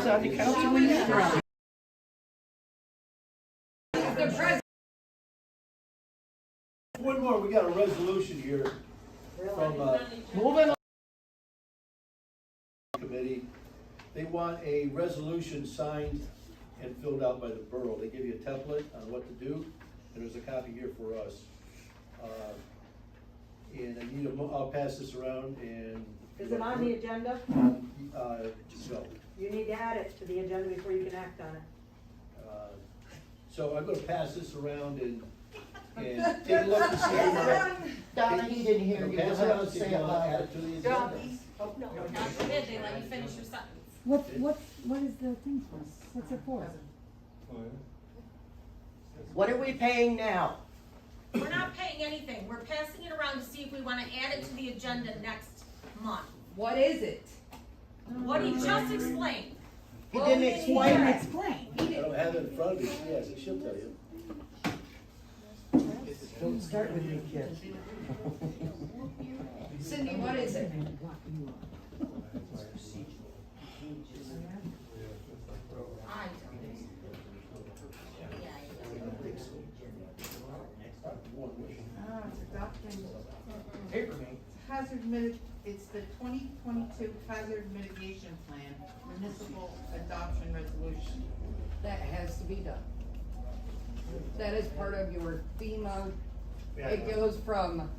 Councilman Brown. One more, we got a resolution here from, uh, Moving on. committee. They want a resolution signed and filled out by the borough. They give you a template on what to do, and there's a copy here for us. Uh, And I need a, mo- I'll pass this around and. Is it on the agenda? Uh, no. You need to add it to the agenda before you can act on it. Uh, So I'm gonna pass this around and, and take a look and see. how- Donna, he didn't hear you, you'll Pass it have on, to see if say you it wanna add louder. it to the agenda. God forbid they let you finish your sentence. What, what, what is the thing for? What's it for? What are we paying now? We're not paying anything, we're passing it around to see if we wanna add it to the agenda next month. What is it? What he just explained, He didn't Explain, explain it. explain. I don't have it in front of me, yes, she'll tell you. Don't start with me, kid. Cindy, what is it? I don't. Yeah, I don't. Ah, it's adopting hazard mitig, it's the twenty twenty-two hazard mitigation plan, municipal adoption resolution. That has to be done. That is part of your FEMA. It goes from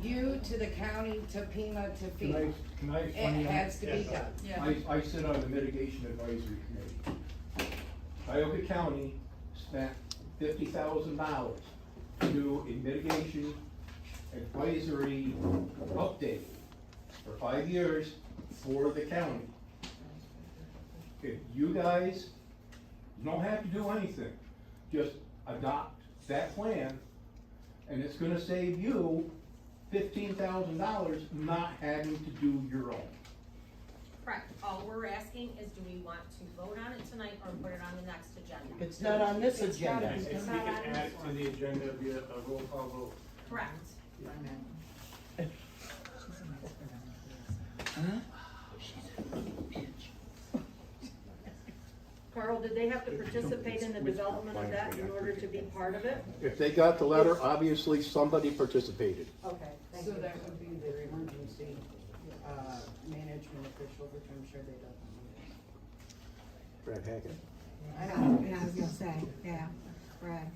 you to the county to FEMA to Can I, FEMA. can I? It has to be Yes. done. I, I sit on the mitigation advisory committee. Tioga County spent fifty thousand dollars to do a mitigation advisory update for five years for the county. If you guys don't have to do anything, just adopt that plan, and it's gonna save you fifteen thousand dollars not having to do your own. Correct, all we're asking is do we want to vote on it tonight or put it on the next agenda? It's not on this agenda. If we can add it to the agenda via a roll call vote. Correct. Carl, did they have to participate in the development of that in order to be part of it? If they got the letter, obviously somebody participated. Okay, thank So you. that would be their emergency, uh, management official, which I'm sure they Brad don't. Hackett. Yeah, I was gonna say, yeah, right.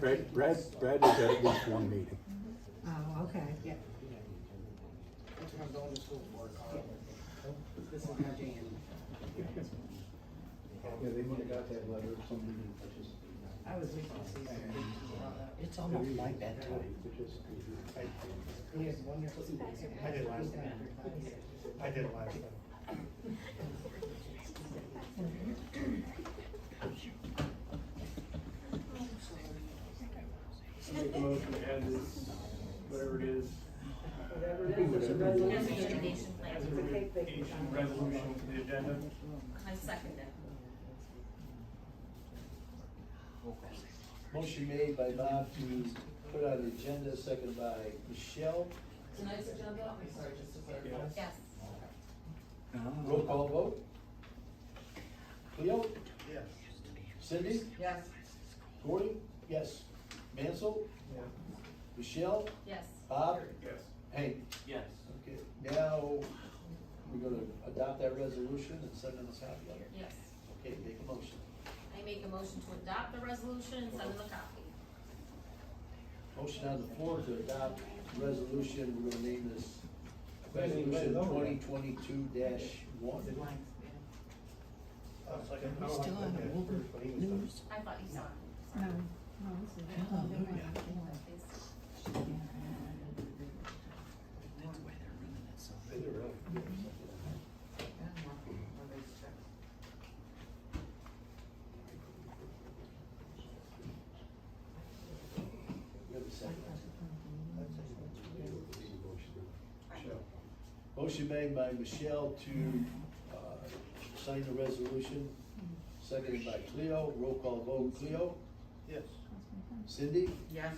Brad, Brad, Brad was at at least one meeting. Oh, okay. Yeah. That's what I'm going to school for, Carl. Oh, This is my jam. Yeah, they would've got that letter if somebody didn't participate. I was waiting to see something brought up. It's almost like that too. He has wonderful. I did last time. I did last time. Make a motion to add this, whatever it is, Whatever it is, it's a resolution. Mitigation as plan, a mitigation resolution to the agenda. I second it. Motion made by Bob to put on the agenda, second by Michelle. Tonight's agenda, I'm sorry, just to clarify. Yes. Roll call vote. Cleo? Yes. Cindy? Yes. Gordy? Yes. Mansell? Yeah. Michelle? Yes. Bob? Yes. Hank? Yes. Okay, now, we're gonna adopt that resolution and send them a copy of it. Yes. Okay, make a motion. I make a motion to adopt the resolution and send them a copy. Motion on the floor to adopt resolution, we're gonna name this resolution twenty twenty-two one. We're still on the Wilbur news. I thought you saw it. No, Sorry. no, this is. Motion made by Michelle to, uh, sign the resolution, seconded by Cleo, roll call vote, Cleo? Yes. Cindy? Yes.